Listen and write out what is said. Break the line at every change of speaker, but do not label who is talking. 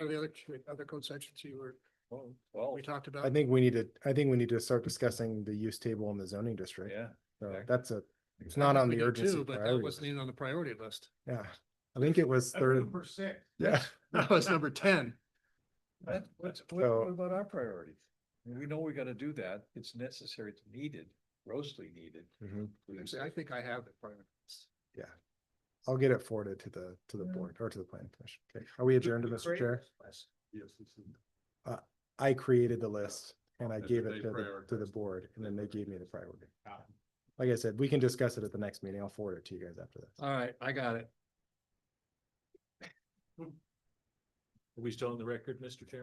Are the other, other code sections you were,
Oh, Well,
we talked about?
I think we need to, I think we need to start discussing the use table in the zoning district.
yeah.
So
exactly.
that's a, it's
I
not
think
on
we
the
did
urgency
too, But that
priority
wasn't
list.
even on the priority list.
Yeah, I think it was third,
six.
yeah,
That was number ten.
What, what's- what,
So-
what about our priorities? We know we gotta do that. It's necessary, it's needed, grossly needed.
Mhm.
We can
Actually, I
say-
think I have the priority list.
I'll get it forwarded to the, to the board or to the planning commission. Okay, are we adjourned, Mr. Chair?
Yes, this is-
I created the list and I
And
gave
then
it
they
to the, to the
prioritized.
board and then they gave me the priority.
Ah.
Like I said, we can discuss it at the next meeting. I'll forward it to you guys after this.
All right, I got it.
Are we still on the record, Mr. Chairman?